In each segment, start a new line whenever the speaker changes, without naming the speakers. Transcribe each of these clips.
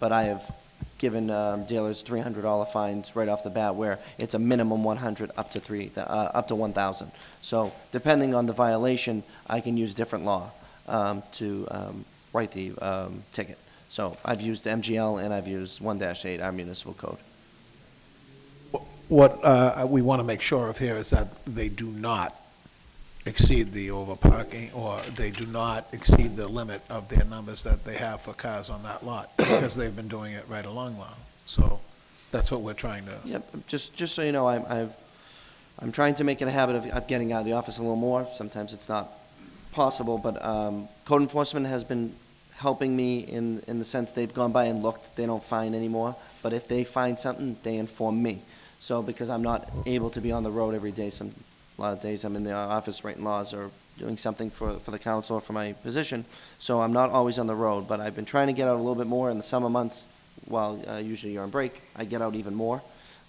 but I have given um, dealers $300 fines right off the bat, where it's a minimum 100 up to three, uh, up to 1,000. So depending on the violation, I can use different law um, to um, write the um, ticket. So I've used MGL and I've used 1-8, our municipal code.
What uh, we want to make sure of here is that they do not exceed the overparking, or they do not exceed the limit of their numbers that they have for cars on that lot, because they've been doing it right along long. So that's what we're trying to,
Yep, just, just so you know, I'm, I'm, I'm trying to make it a habit of, of getting out of the office a little more. Sometimes it's not possible, but, um, code enforcement has been helping me in, in the sense they've gone by and looked, they don't find anymore. But if they find something, they inform me. So, because I'm not able to be on the road every day, some, a lot of days I'm in the office writing laws or doing something for, for the council or for my position. So I'm not always on the road, but I've been trying to get out a little bit more in the summer months while, uh, usually you're on break. I get out even more.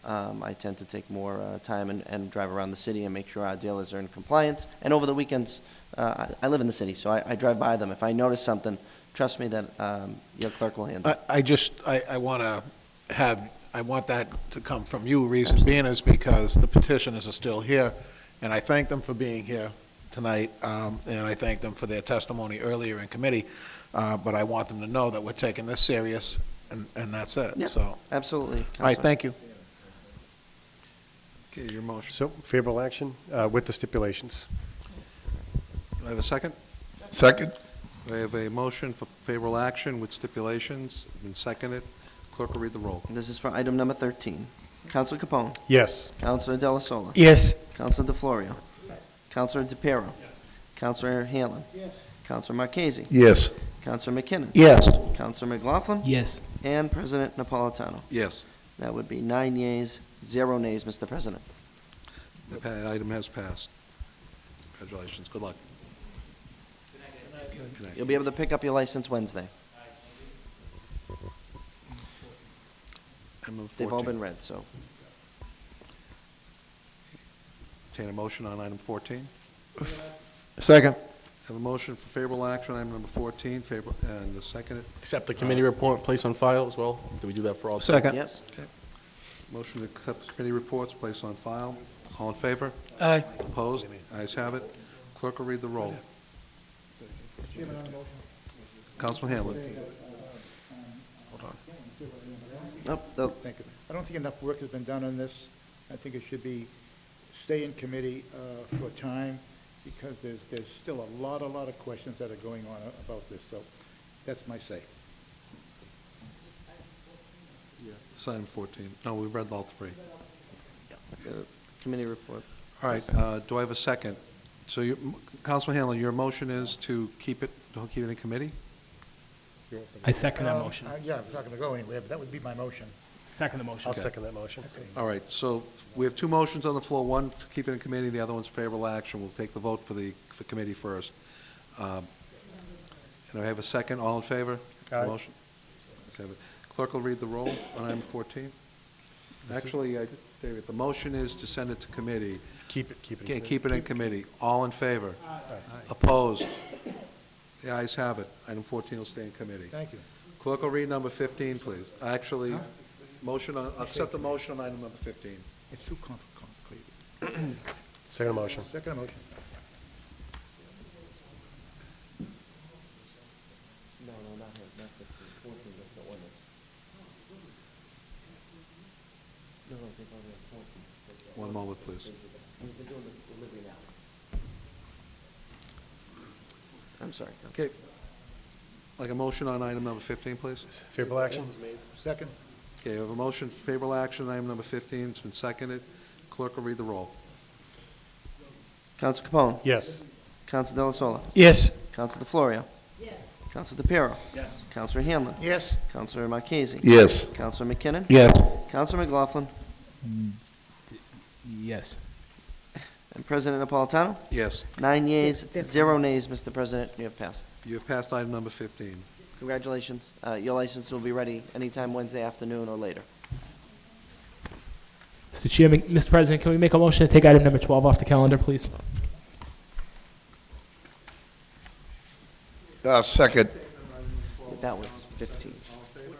Um, I tend to take more uh, time and, and drive around the city and make sure our dealers are in compliance. And over the weekends, uh, I, I live in the city, so I, I drive by them. If I notice something, trust me that um, your clerk will handle
I-
it.
I just, I, I want to have, I want that to come from you, reason being is because the petitioners are still here, and I thank them for being here tonight, um, and I thank them for their testimony earlier in committee, uh, but I want them to know that we're taking this serious, and, and that's
Yeah.
it, so. All
Absolutely.
right,
Counselor.
thank you.
Okay, your motion.
So favorable action uh, with the stipulations.
Do I have a second?
Second?
I have a motion for favorable action with stipulations, been seconded. Clerk will read the roll.
This is for item number 13. Councilor Capone.
Yes.
Councilor Della Sola.
Yes.
Councilor DeFlorio. Councilor DePiero. Councilor Hanlon. Councilor Marchese.
Yes.
Councilor McKinnon.
Yes.
Councilor McLaughlin.
Yes.
And President Napolitano.
Yes,
That would be nine yeas, zero nays, Mr. President.
the pa- item has passed. Congratulations, good luck. Good night.
You'll be able to pick up your license Wednesday.
Item number
They've all
14.
been read, so.
Entertain a motion on item 14.
Second.
Have a motion for favorable action, on item number 14, favorable, and the seconded.
Accept the committee report, place on file as well? Do we do that for all?
Second.
Yes.
Motion to accept committee reports, place on file. All in favor?
Aye.
Opposed? Ayes have it. Clerk will read the roll. Councilman Hanlon.
Nope, the-
Thank you. I don't think enough work has been done on this. I think it should be, stay in committee uh, for a time, because there's, there's still a lot, a lot of questions that are going on uh, about this, so that's my say.
It's item 14. No, we read all three.
the committee report.
All right, uh, do I have a second? So, your- Councilman Hanlon, your motion is to keep it, don't keep it in committee?
I second that
Um,
motion.
uh, Yeah, it's not gonna go anywhere, but that would be my motion.
Second the motion.
I'll second that motion.
All right, so we have two motions on the floor, one to keep it in committee, the other one's favorable action. We'll take the vote for the for committee first. Um, And I have a second, all in favor?
Aye.
Motion. Let's have it. Clerk will read the roll on item 14. Actually, I- David, the motion is to send it to committee.
Keep it, keep it.
Can't keep it in committee. All in favor? Opposed? The ayes have it. Item 14 will stay in committee.
Thank you.
Clerk will read number 15, please. Actually, motion, on accept the motion on item number 15.
It's too compli- complicated.
Second motion.
Second motion.
No, no, not him, not the, fourteen, that's the ordinance. No, no, they've already fourteen.
One moment, please.
We've been doing the delivery now. I'm sorry, Coun-
Okay. Like a motion on item number 15, please?
Favorable action?
Second?
Okay, I have a motion, for favorable action, on item number 15. It's been seconded. Clerk will read the roll.
Counsel Capone.
Yes.
Counsel Delasola.
Yes.
Counsel DeFlorio. Yes. Counsel DePiero.
Yes.
Counselor Hanlon.
Yes.
Counselor Marchese.
Yes.
Counselor McKinnon.
Yes.
Counselor McLaughlin.
Yes.
And President Napolitano.
Yes,
Nine yeas, zero nays, Mr. President, you have passed.
you have passed item number 15.
Congratulations. Uh, Your license will be ready anytime Wednesday afternoon or later.
Mr. Chairman, Mr. President, can we make a motion to take item number 12 off the calendar, please?
Uh, Second?
That was 15.